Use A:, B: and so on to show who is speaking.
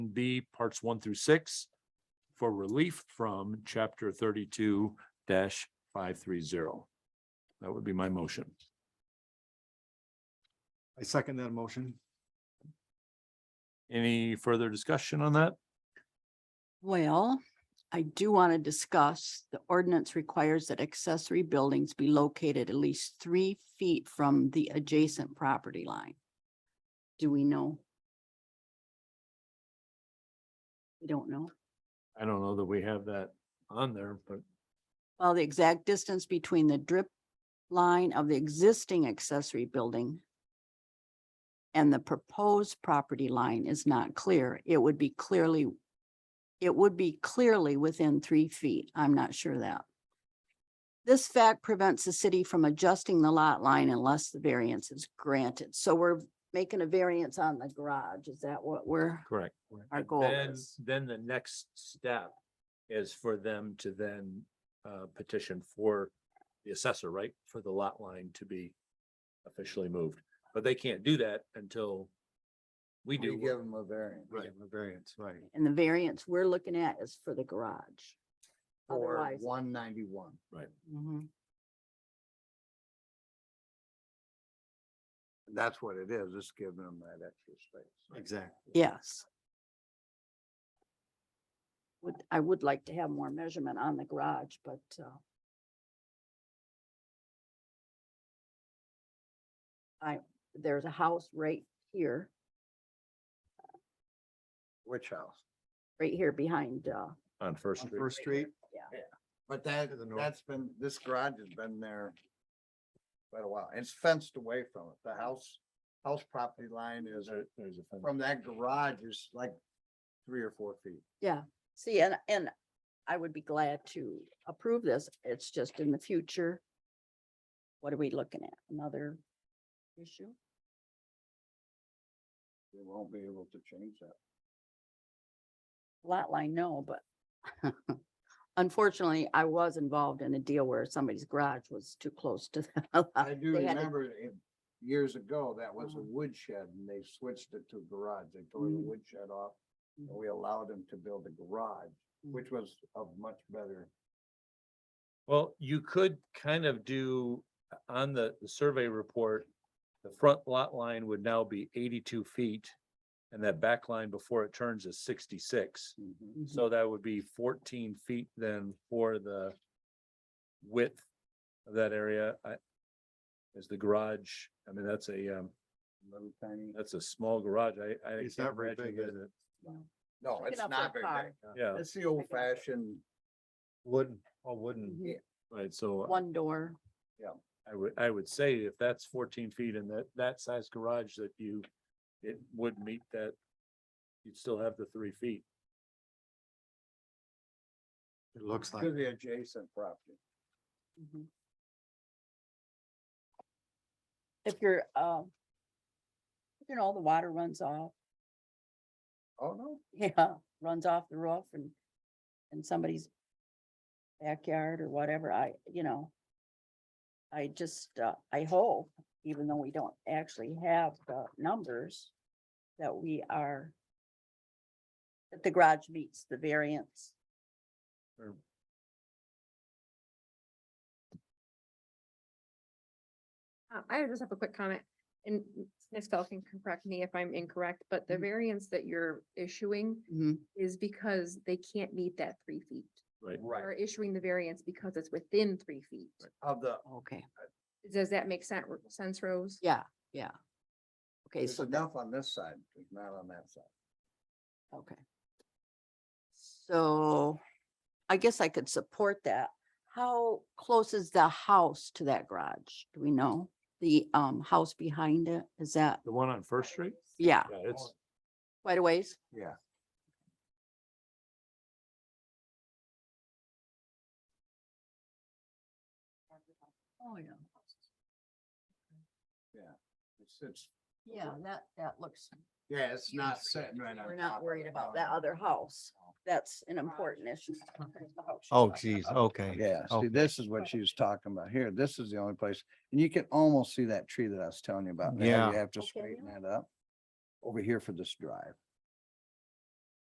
A: D, parts one through six for relief from chapter thirty-two five three zero. That would be my motion.
B: I second that motion.
A: Any further discussion on that?
C: Well, I do want to discuss, the ordinance requires that accessory buildings be located at least three feet from the adjacent property line. Do we know? We don't know.
A: I don't know that we have that on there, but
C: Well, the exact distance between the drip line of the existing accessory building and the proposed property line is not clear. It would be clearly, it would be clearly within three feet. I'm not sure of that. This fact prevents the city from adjusting the lot line unless the variance is granted. So we're making a variance on the garage. Is that what we're?
A: correct.
C: Our
A: And
C: goal
A: then-
C: is-
A: Then the next step is for them to then uh, petition for the assessor, right? For the lot line to be officially moved, but they can't do that until we do.
B: give them a variance.
A: Right.
B: A variance, right.
C: And the variance we're looking at is for the garage.
B: For
C: Otherwise-
B: one ninety-one.
C: Mhm.
B: That's what it is. It's giving them that extra space. Exactly.
C: Yes. Would, I would like to have more measurement on the garage, but, uh, I, there's a house right here,
B: Which house?
C: right here behind, uh,
A: On First
B: On
A: Street.
B: First Street?
C: Yeah.
B: But that,
A: To the north.
B: that's been, this garage has been there quite a while. It's fenced away from it. The house, house property line is uh,
A: There- there's a fence.
B: from that garage is like three or four feet.
C: see, and, and I would be glad to approve this. It's just in the future. What are we looking at? Another issue?
B: They won't be able to change that.
C: lot line, no, but unfortunately, I was involved in a deal where somebody's garage was too close to the
B: I
C: lot.
B: do
C: Uh, They had to-
B: remember it years ago, that was a
C: Mhm.
B: woodshed and they switched it to a garage. They tore the
C: Mm.
B: woodshed off. and
C: Mhm.
B: We allowed them to build a garage,
C: Mm.
B: which was of much better.
A: Well, you could kind of do uh, on the, the survey report, the front lot line would now be eighty-two feet. And that back line before it turns is sixty-six.
C: Mhm.
A: So that would be fourteen feet then for the width of that area. I, is the garage, I mean, that's a, um,
B: Little tiny.
A: that's a small garage. I, I.
B: It's
A: can't
B: not very
A: imagine
B: big,
A: that
B: is
A: it-
B: No,
C: Look it
B: it's
C: up for
B: not
C: a
B: very
C: car.
B: big. huh?
A: Yeah,
B: It's the old fashioned,
A: wooden, all wooden,
C: Mhm.
A: right? So.
C: One door,
A: I would, I would say if that's fourteen feet and that, that size garage that you, it would meet that. You'd still have the three feet.
D: It looks like,
B: to the adjacent property.
C: Mhm. If you're, uh, you know, the water runs off,
B: Oh, no,
C: yeah, runs off the roof and, and somebody's backyard or whatever, I, you know, I just, uh, I hope, even though we don't actually have the numbers, that we are that the garage meets the variance.
A: or-
E: Uh, I just have a quick comment, and Ms. Bell can correct me if I'm incorrect, but the
A: Mm-hmm.
C: Mhm.
E: variance that you're issuing is because they can't meet that three feet.
A: Right.
E: You're
B: right,
E: issuing the variance because it's within three feet.
B: of the,
C: Okay,
E: Does that make sense, sense, Rose?
C: yeah, yeah. Okay,
B: it's
C: so that,
B: enough on this side, there's not on that side.
C: okay. So I guess I could support that. How close is the house to that garage? Do we know? The um house behind it, is that,
A: The one on First Street?
C: yeah,
A: Yeah, it's,
C: quite a ways?
B: Yeah.
C: Oh, yeah.
B: It's, it's,
C: Yeah, that, that looks,
B: yeah, it's not
C: Huge.
B: sitting right on.
C: we're not
B: top
C: worried
B: of
C: about
B: no,
C: that
B: no.
C: other house. That's an important issue.
D: oh geez, okay.
B: Yeah, see,
D: Okay.
B: this is what she was talking about here. This is the only place, and you can almost see that tree that I was telling you about. now.
D: Yeah.
B: You have to
C: Okay,
B: straighten that up over here for this drive.